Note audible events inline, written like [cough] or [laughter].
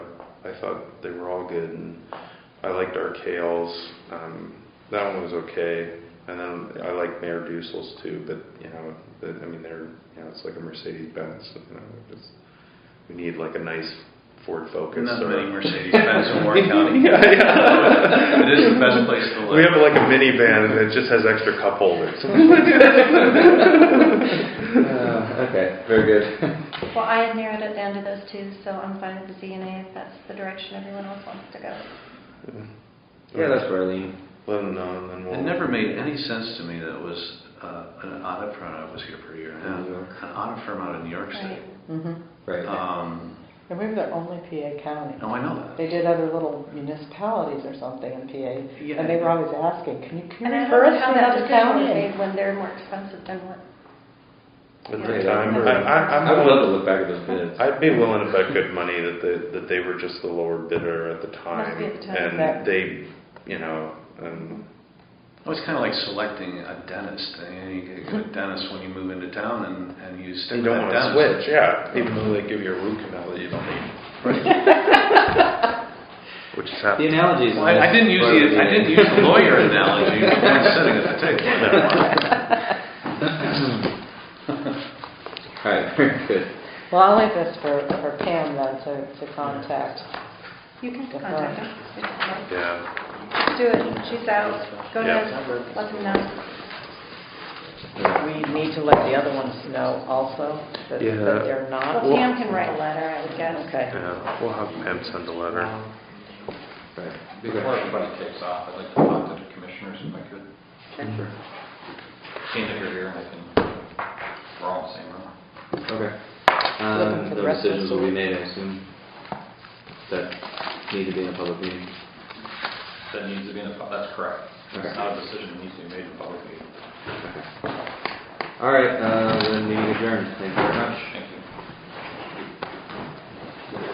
I thought they were all good, and I liked our kales. Um, that one was okay, and then I liked Mayor Dusel's too. But you know, the, I mean, they're you know, it's like a Mercedes Benz. You know, it's, we need like a nice Ford Focus. Not or- many Mercedes Benz in Warren County. [laughs] Yeah, yeah. It is the best place to We have live. like a minivan, and it just has extra cup holders. Uh, Okay, very good. Well, I had narrowed it down to those two, so I'm fine with the ZNA if that's the direction everyone else wants to go. Yeah, that's where I lean. Let them know, and then we'll. It never made any sense to me that it was uh, an audit firm, I was here for a year and a In New York. half, an audit firm out of New York City. Right. Mm-hmm. Right. Um, I believe they're only PA County. No, I know that. They did other little municipalities or something in PA, Yeah. and they were always asking, can you, can And I you refer don't know us how to that another decision was county? made when they're more expensive than what, At the Okay, time, I, I'm- Uh, I, I I'm would love to willing, look back at those bids. I'd be willing to bet good money that they, that they were just the lower bidder at the Must time, be at the time, and correct. they, you know, and Well, it's kind of like selecting a dentist. I mean, You get a good dentist when you move into town and, and you you stick with don't want that to dentist. switch, yeah. Even though they give you a root canal that you don't need, [laughs] which is The happening. analogies. Well, I I didn't use the, I didn't use the [laughs] lawyer analogy, but I'm sitting at the table. on that one. All right, very good. Well, I'll leave this for, for Pam then to, to contact. you can Go contact for it. them. It's fine. Yeah, Do it, she's out, go Yeah. ahead, let them know. We need to let the other ones know also that that Yeah. they're not. Well, Pam can write a letter, I would guess. Okay. yeah, we'll have Pam send a letter. Right. Be Before good. everybody takes off, I'd like to talk to the commissioners if I could. Seeing that you're here, I think we're all in the same room. Okay. Looking Um, for the those rest of decisions the will be week. made, I assume, that need to be in a public meeting. That needs to be in a, pub- that's correct. Okay. It's not a decision that needs to be made in public meeting. All right, uh, then meeting adjourned. Thank you very much. Thank you.